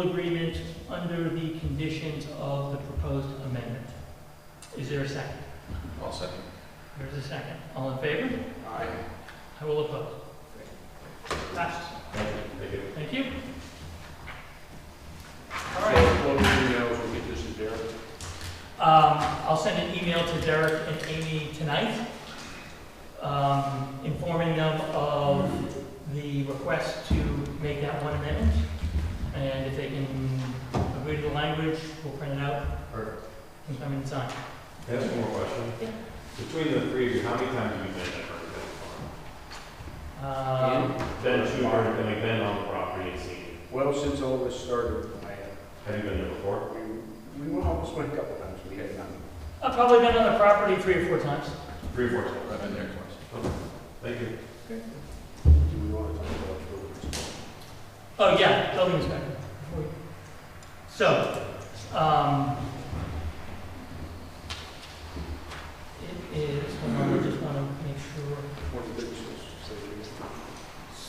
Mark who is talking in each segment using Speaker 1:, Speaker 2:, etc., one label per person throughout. Speaker 1: agreement under the conditions of the proposed amendment. Is there a second?
Speaker 2: I'll second.
Speaker 1: There's a second. All in favor?
Speaker 2: Aye.
Speaker 1: I will oppose. Passed.
Speaker 2: Thank you.
Speaker 1: Thank you.
Speaker 2: All right. What we do now is we'll get this to Derek.
Speaker 1: Um, I'll send an email to Derek and Amy tonight, um, informing them of the request to make that one amendment. And if they can agree to the language, we'll print it out
Speaker 3: Or,
Speaker 1: and come and sign.
Speaker 3: can I ask one more question?
Speaker 1: Yeah.
Speaker 3: Between the three of you, how many times have you been to Hurricane
Speaker 1: Um,
Speaker 3: Farm? Been to, or like been on the property and seen it?
Speaker 4: Well, since all this started, I,
Speaker 3: Have you been there before?
Speaker 4: uh, we, we almost went a couple times, we had none.
Speaker 1: I've probably been on the property three or four times.
Speaker 3: Three, or four times.
Speaker 2: I've been there twice.
Speaker 3: Thank you.
Speaker 4: Do we want to talk about buildings?
Speaker 1: Oh, yeah, building inspector. So, um, it is, hold on, I just want to make sure.
Speaker 4: One of the businesses, so you-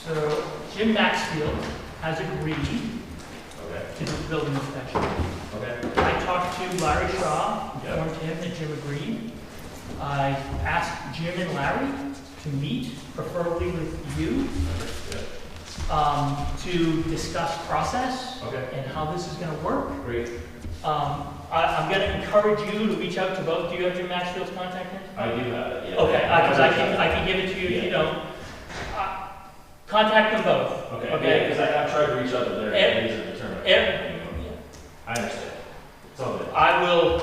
Speaker 1: So Jim Maxfield has agreed
Speaker 3: Okay.
Speaker 1: to do the building inspection.
Speaker 3: Okay.
Speaker 1: I talked to Larry Shaw,
Speaker 3: Yeah.
Speaker 1: informed him that Jim agreed. I asked Jim and Larry to meet, preferably with you,
Speaker 3: Yeah.
Speaker 1: um, to discuss process
Speaker 3: Okay.
Speaker 1: and how this is gonna work.
Speaker 3: Great.
Speaker 1: Um, I, I'm gonna encourage you to reach out to both, do you have Jim Maxfield's contact information?
Speaker 3: I do have it. yeah.
Speaker 1: Okay, I, cause I can, I can give it to you if you
Speaker 3: Yeah.
Speaker 1: don't. Uh, Contact them both.
Speaker 3: Okay,
Speaker 1: Okay.
Speaker 3: yeah, because I, I've tried to reach out to Derek,
Speaker 1: And-
Speaker 3: and he's a determined.
Speaker 1: Every-
Speaker 3: I understand. It's all good.
Speaker 1: I will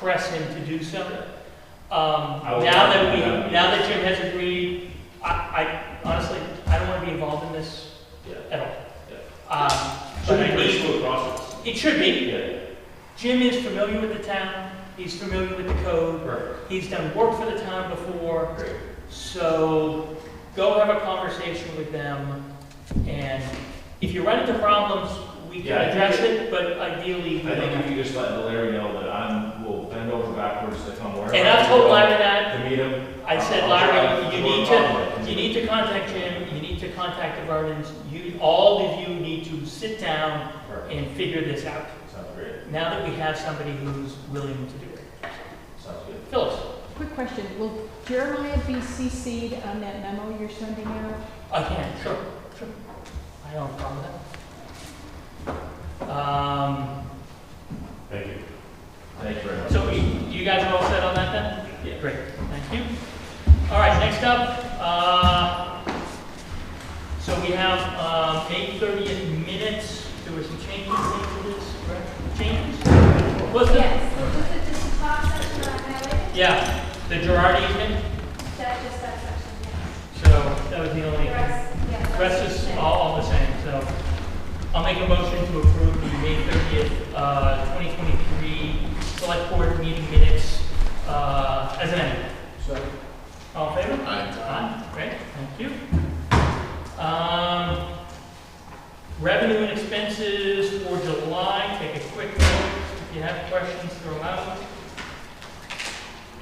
Speaker 1: press him to do so. Um,
Speaker 3: I will-
Speaker 1: now that we, now that Jim has agreed, I, I honestly, I don't want to be involved in this
Speaker 3: Yeah.
Speaker 1: at all. Um,
Speaker 3: Should
Speaker 1: but
Speaker 3: be
Speaker 1: I
Speaker 3: pretty
Speaker 1: need,
Speaker 3: smooth process.
Speaker 1: it should be.
Speaker 3: Yeah.
Speaker 1: Jim is familiar with the town, he's familiar with the code,
Speaker 3: Perfect.
Speaker 1: he's done work for the town before,
Speaker 3: Great.
Speaker 1: so go have a conversation with them. And if you run into problems, we can
Speaker 3: Yeah, I think
Speaker 1: address it, but ideally, we
Speaker 3: I
Speaker 1: don't
Speaker 3: think
Speaker 1: have
Speaker 3: if you just let Larry know that I'm, will bend over backwards to come wherever.
Speaker 1: to. And I've told Larry that,
Speaker 3: To meet him.
Speaker 1: I said,
Speaker 3: I'll
Speaker 1: Larry,
Speaker 3: drive
Speaker 1: you
Speaker 3: to
Speaker 1: need
Speaker 3: work
Speaker 1: to,
Speaker 3: on it."
Speaker 1: you need to contact Jim, you need to contact the Vernons, you, all of you need to sit down
Speaker 3: Perfect.
Speaker 1: and figure this out,
Speaker 3: Sounds great.
Speaker 1: now that we have somebody who's willing to do it.
Speaker 3: Sounds good.
Speaker 1: Phyllis,
Speaker 5: Quick question, will Jeremiah be CC'd on that memo you're sending out?
Speaker 1: I can, sure, sure, I don't have a problem with that. Um,
Speaker 3: Thank you. Thank you very much.
Speaker 1: so we, you guys are all set on that then?
Speaker 3: Yeah.
Speaker 1: Great, thank you. All right, next up, uh, so we have, uh, May thirtieth minutes, there were some changes made to this, correct? Changes? Was it?
Speaker 6: Yes, so was it just the top section on highway?
Speaker 1: Yeah, the Girardi easement,
Speaker 6: That, just that section, yes.
Speaker 1: so that was the
Speaker 6: The
Speaker 1: only,
Speaker 6: rest, yeah. the
Speaker 1: rest is
Speaker 6: the
Speaker 1: all, all the same, so. I'll make a motion to approve the May thirtieth, uh, twenty twenty-three select board meeting minutes, uh, as amended.
Speaker 4: So,
Speaker 1: All in favor?
Speaker 2: Aye.
Speaker 1: Aye, great, thank you. Um, revenue and expenses for July, take a quick look, if you have questions, throw them out.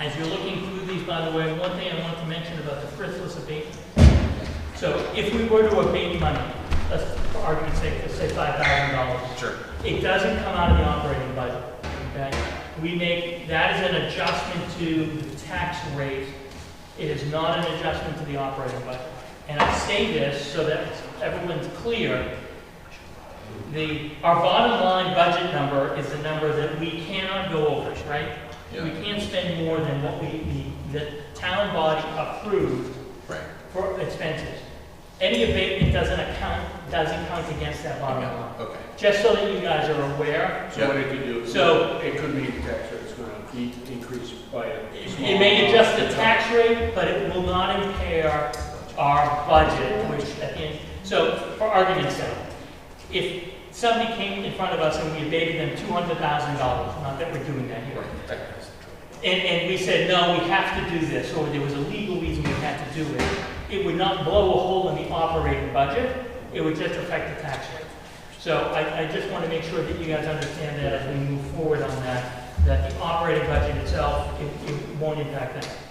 Speaker 1: As you're looking through these, by the way, one thing I want to mention about the frithless abatement. So if we were to abate money, let's, for argument's sake, let's say five thousand dollars.
Speaker 2: Sure.
Speaker 1: It doesn't come out of the operating budget, okay? We make, that is an adjustment to the tax rate. It is not an adjustment to the operating budget. And I say this so that everyone's clear. The, our bottom line budget number is the number that we cannot go over, right? We
Speaker 2: Yeah,
Speaker 1: can't spend more than what we, the, the town body approved
Speaker 2: right.
Speaker 1: for expenses. Any abatement doesn't account, doesn't count against that bottom line.
Speaker 2: Okay.
Speaker 1: Just so that you guys are aware,
Speaker 4: so what it could do.
Speaker 1: So-
Speaker 4: It could mean the tax rate's gonna de- increase by a small.
Speaker 1: it may adjust the tax rate, but it will not impair our budget, which at the end, so for argument's sake, if somebody came in front of us and we abated them two hundred thousand dollars, not that we're doing that here, and, and we said, no, we have to do this, or there was a legal reason we had to do it, it would not blow a hole in the operating budget, it would just affect the tax rate. So I, I just want to make sure that you guys understand that as we move forward on that, that the operating budget itself, it, it won't impact that.